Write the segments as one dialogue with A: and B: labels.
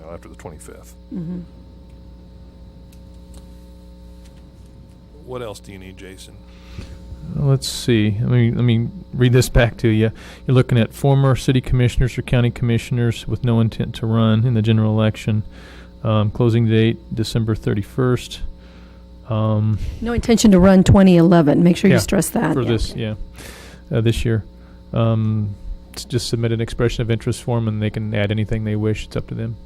A: know, after the 25th.
B: Mm-hmm.
A: What else do you need, Jason?
C: Let's see. Let me let me read this back to you. You're looking at former city commissioners or county commissioners with no intent to run in the general election. Um, closing date December 31st. Um,
B: No intention to run 2011. Make sure
C: Yeah,
B: you stress that.
C: for
B: Yeah.
C: this, yeah, uh, this year. Um, s- just submit an expression of interest form, and they can add anything they wish. It's up to them.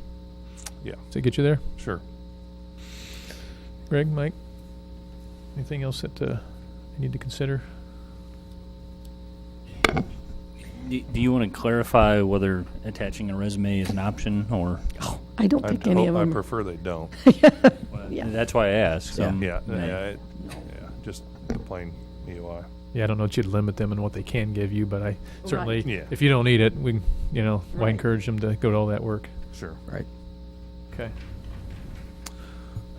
A: Yeah.
C: Does that get you there,
A: Sure.
C: Greg, Mike? Anything else that uh, you need to consider?
D: Do, do you want to clarify whether attaching a resume is an option or?
B: I don't
A: I,
B: think
A: I
B: any
A: hope-
B: of
A: I
B: them.
A: prefer they don't.
B: Yeah.
D: That's why I asked. so-
A: Yeah,
D: Yeah.
A: yeah, it- yeah, just the plain E EOI.
C: Yeah, I don't know that you'd limit them and what they can give you, but I certainly,
A: Yeah.
C: if you don't need it, we, you know, I
B: Right.
C: encourage them to go to all that work.
A: Sure.
E: Right.
C: Okay.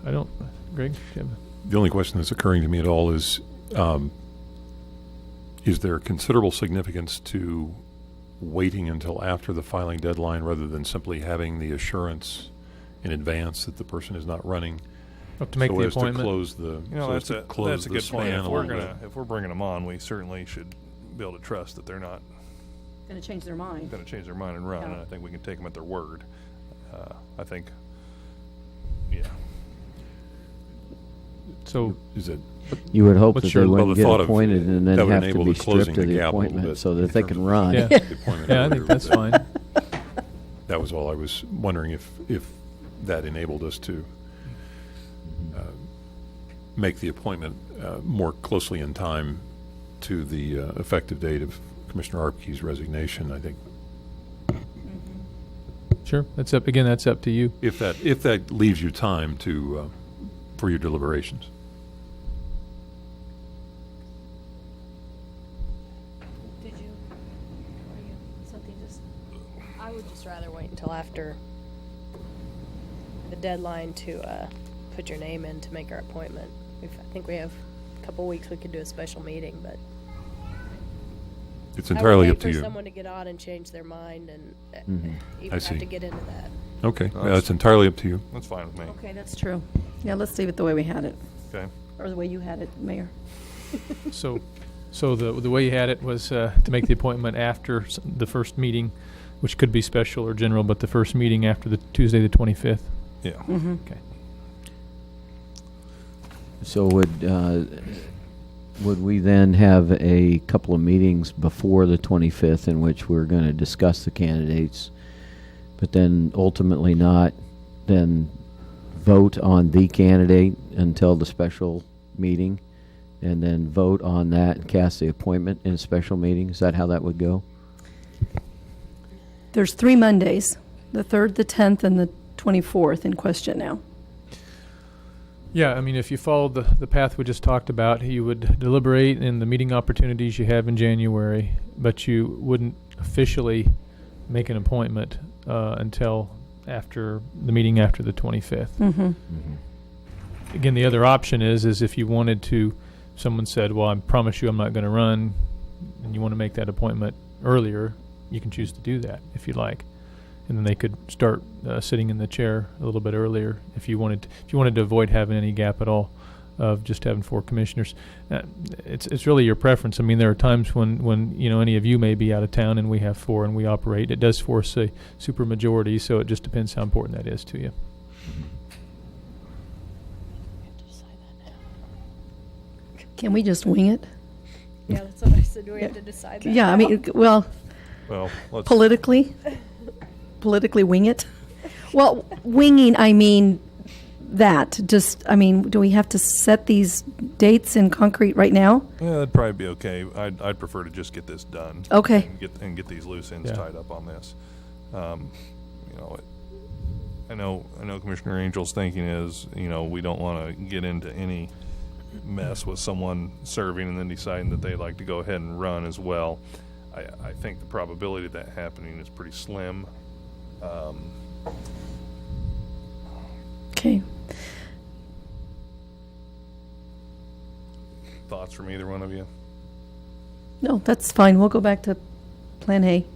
C: I don't, Greg, Jim,
F: The only question that's occurring to me at all is, um, is there considerable significance to waiting until after the filing deadline rather than simply having the assurance in advance that the person is not running?
C: to make
F: so
C: the
F: as to
C: appointment.
F: close the,
A: You know,
F: so as
A: that's
F: to
A: a
F: close
A: that's a
F: the
A: good point.
F: span
A: If
F: a
A: we're
F: little
A: gonna
F: bit.
A: if we're bringing them on, we certainly should be able to trust that they're not
B: Going to change their mind.
A: going to change their mind and run.
B: Yeah.
A: And I think we can take them at their word. Uh, I think. Yeah.
C: So,
F: Is it,
E: You would hope
C: What's
E: that they
C: your-
F: well, the
E: wouldn't get
F: thought of-
E: appointed and then
F: that would
E: have to
F: enable
E: be
F: the closing
E: stripped of
F: the
E: the
F: gap a little
E: appointment
F: bit
E: so
F: in
E: that they
F: terms
E: can
F: of-
E: run.
C: yeah,
F: the appointment
C: yeah, I
F: earlier,
C: think that's
F: but
C: fine.
F: That was all I was wondering if, if that enabled us to uh, make the appointment uh, more closely in time to the uh, effective date of Commissioner Arpkey's resignation, I think.
C: Sure, that's up, again, that's up to you.
F: If that, if that leaves you time to, uh, for your deliberations.
G: Did you, are you, something just? I would just rather wait until after the deadline to, uh, put your name in to make our appointment. We've, I think we have a couple weeks, we could do a special meeting, but.
F: It's entirely
G: I would
F: up to
G: wait
F: you. Mm-hmm.
G: for someone to get on and change their mind and uh,
F: I
G: even have
F: see.
G: to get into that.
F: Okay,
A: No,
F: yeah, it's entirely up to you.
A: That's fine with me.
B: Okay, that's true. Yeah, let's leave it the way we had it,
A: Okay.
B: or the way you had it, Mayor.
C: So, so the, the way you had it was uh, to make the appointment after s- the first meeting, which could be special or general, but the first meeting after the Tuesday, the 25th.
A: Yeah.
C: Okay.
E: So would, uh, would we then have a couple of meetings before the 25th in which we're going to discuss the candidates, but then ultimately not, then vote on the candidate until the special meeting, and then vote on that and cast the appointment in a special meeting? Is that how that would go?
B: There's three Mondays, the 3rd, the 10th, and the 24th in question now.
C: Yeah, I mean, if you followed the, the path we just talked about, you would deliberate in the meeting opportunities you have in January, but you wouldn't officially make an appointment uh, until after the meeting after the 25th.
B: Mm-hmm.
C: Again, the other option is is if you wanted to, someone said, "Well, I promise you, I'm not going to run," and you want to make that appointment earlier, you can choose to do that if you like, and then they could start uh, sitting in the chair a little bit earlier if you wanted. if you wanted to avoid having any gap at all, of just having four commissioners, uh, it's it's really your preference. I mean, there are times when when you know any of you may be out of town and we have four and we operate. It does force a supermajority, so it just depends how important that is to you.
B: Can we just wing it?
G: Yeah, that's what I said, we
B: have
G: have
B: to
G: to decide that.
B: Yeah, I mean, well,
A: Well, let's.
B: politically, politically wing it. Well, winging, I mean that. Just, I mean, do we have to set these dates in concrete right now?
A: yeah, that'd probably be okay. I'd, I'd prefer to just get this done.
B: Okay.
A: And get and get these loose ends
C: Yeah.
A: tied up on this. Um, you know, it, I know I know Commissioner Angel's thinking is you know we don't want to get into any mess with someone serving and then deciding that they'd like to go ahead and run as well. I, I think the probability of that happening is pretty slim. Um,
B: Okay.
A: thoughts from either one of you?
B: No, that's fine. We'll go back to Plan A.